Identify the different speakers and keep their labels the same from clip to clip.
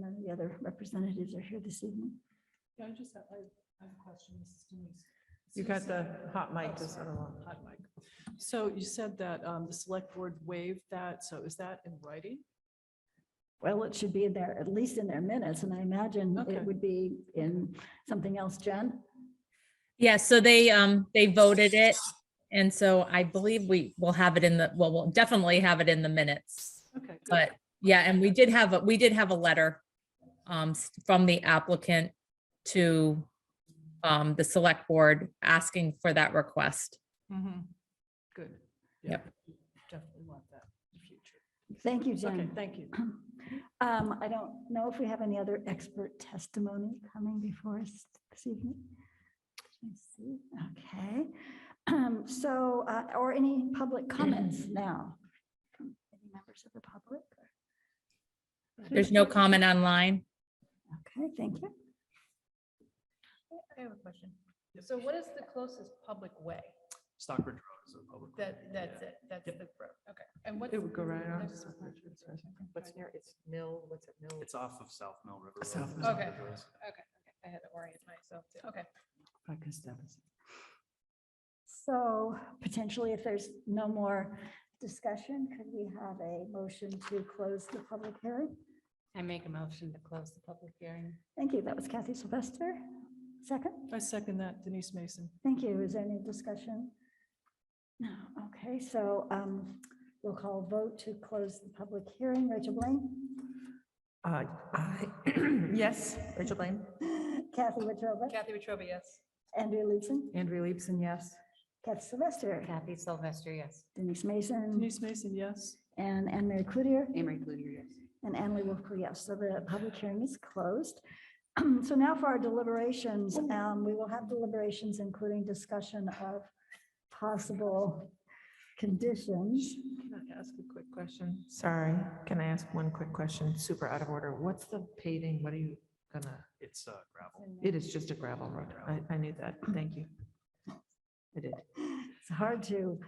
Speaker 1: the other representatives are here this evening.
Speaker 2: Yeah, I just have, I I have a question, Mrs. Denise.
Speaker 3: You got the hot mic just out of line.
Speaker 2: Hot mic. So you said that um, the select board waived that, so is that in writing?
Speaker 1: Well, it should be in there, at least in their minutes, and I imagine
Speaker 2: Okay.
Speaker 1: it would be in something else, Jen?
Speaker 4: Yeah, so they, um, they voted it. And so I believe we will have it in the, well, we'll definitely have it in the minutes.
Speaker 2: Okay. good.
Speaker 4: But yeah, and we did have, a we did have a letter um, s- from the applicant to um, the select board asking for that request.
Speaker 2: Mhm. Good. Yeah,
Speaker 4: Yep.
Speaker 2: Definitely want that in the future.
Speaker 1: Thank you,
Speaker 2: Okay,
Speaker 1: Jen.
Speaker 2: thank you.
Speaker 1: Um, I don't know if we have any other expert testimony coming before us this evening. Let me see. Okay, Um, so, uh, or any public comments now? from Any members of the public?
Speaker 4: There's no comment online.
Speaker 1: Okay, thank you.
Speaker 5: I have a question.
Speaker 2: Yep.
Speaker 5: So what is the closest public way?
Speaker 6: Stockbridge Road is a public. road.
Speaker 5: That, that's it, that's the road, okay. And what's?
Speaker 3: It would go right on.
Speaker 5: next-
Speaker 3: What's near, it's Mill, what's it, Mill?
Speaker 6: It's off of South Mill River. Road.
Speaker 3: South Mill.
Speaker 5: Okay, okay, okay. I had to orient myself, too. okay.
Speaker 1: So potentially, if there's no more discussion, could we have a motion to close the public hearing?
Speaker 7: I make a motion to close the public hearing.
Speaker 1: Thank you. That was Kathy Sylvester. Second?
Speaker 2: I second that, Denise Mason.
Speaker 1: Thank you. Is there any discussion? No, okay, so um, we'll call vote to close the public hearing. Rachel Blaine?
Speaker 3: Uh, I, yes, Rachel Blaine.
Speaker 1: Kathy Wetruba?
Speaker 5: Kathy Wetruba, yes.
Speaker 1: Andrea Leeson?
Speaker 3: Andrea Leibson, yes.
Speaker 1: Kathy Sylvester?
Speaker 7: Kathy Sylvester, yes.
Speaker 1: Denise Mason?
Speaker 2: Denise Mason, yes.
Speaker 1: And Anne Mary Cloutier?
Speaker 7: Amory Cludier, yes.
Speaker 1: And Annalee Wolfco, yes. So the public hearing is closed. So now for our deliberations, um, we will have deliberations, including discussion of possible conditions.
Speaker 3: Can I ask a quick question? Sorry, can I ask one quick question? Super out of order. What's the paving? What are you gonna,
Speaker 6: It's uh, gravel.
Speaker 3: it is just a gravel road. I, I knew that. Thank you. I did.
Speaker 1: It's hard to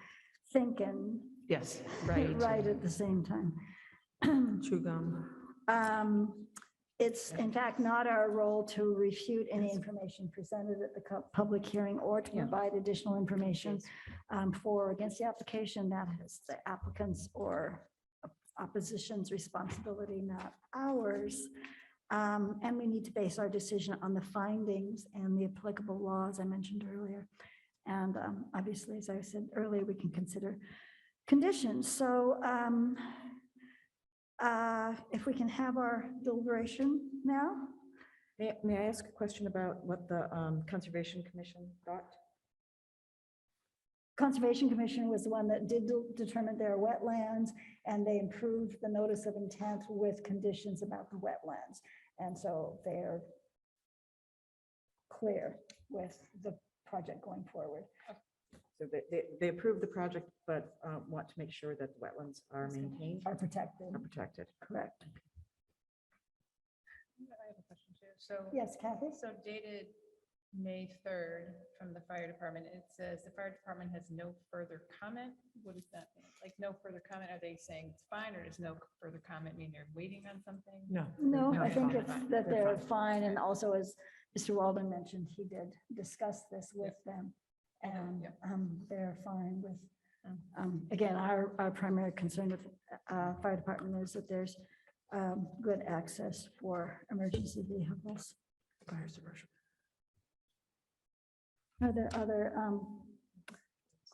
Speaker 1: think and
Speaker 3: Yes, right.
Speaker 1: right at the same time.
Speaker 3: Chew gum.
Speaker 1: Um, It's in fact not our role to refute any information presented at the cu- public hearing or to
Speaker 3: Yeah.
Speaker 1: provide additional information um, for or against the application. That is the applicant's or opposition's responsibility, not ours. Um, And we need to base our decision on the findings and the applicable laws I mentioned earlier. And um, obviously, as I said earlier, we can consider conditions. So um, uh, if we can have our deliberation now?
Speaker 8: May, may I ask a question about what the um, Conservation Commission thought?
Speaker 1: Conservation Commission was the one that did de- determine their wetlands, and they improved the notice of intent with conditions about the wetlands. And so they're clear with the project going forward.
Speaker 8: So they, they, they approved the project, but uh, want to make sure that the wetlands are maintained,
Speaker 1: Are protected,
Speaker 8: are protected.
Speaker 1: correct?
Speaker 5: I have a question too. So.
Speaker 1: Yes, Kathy?
Speaker 5: So dated May third from the fire department, it says the fire department has no further comment. What does that mean? Like no further comment? Are they saying it's fine or does no further comment mean they're waiting on something?
Speaker 3: No.
Speaker 1: No,
Speaker 5: No,
Speaker 1: I
Speaker 5: it's
Speaker 1: think
Speaker 5: fine.
Speaker 1: it's that they're
Speaker 3: They're fine.
Speaker 1: fine, and also as Mr. Walden mentioned, he did discuss this with them. And
Speaker 5: Yep.
Speaker 1: um, they're fine with,
Speaker 5: Mm.
Speaker 1: um, again, our, our primary concern with uh, fire department is that there's um, good access for emergency vehicles.
Speaker 3: Fire suppression.
Speaker 1: Are there other um,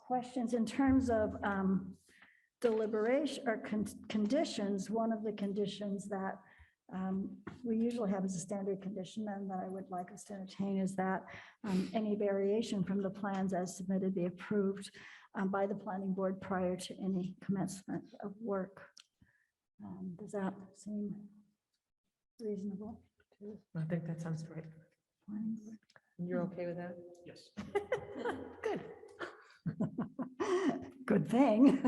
Speaker 1: questions in terms of um, deliberation or con- conditions? One of the conditions that um, we usually have as a standard condition and that I would like us to entertain is that um, any variation from the plans as submitted be approved um, by the planning board prior to any commencement of work. Um, Does that seem reasonable to
Speaker 3: I think that sounds right.
Speaker 1: the planning board?
Speaker 3: You're okay with that?
Speaker 6: Yes.
Speaker 1: Good. Good thing.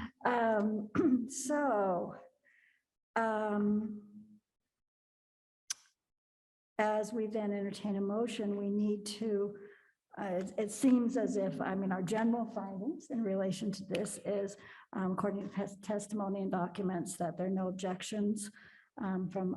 Speaker 1: Um, So, um, as we then entertain a motion, we need to, uh, it- it seems as if, I mean, our general findings in relation to this is, um, according to tes- testimony and documents, that there are no objections um, from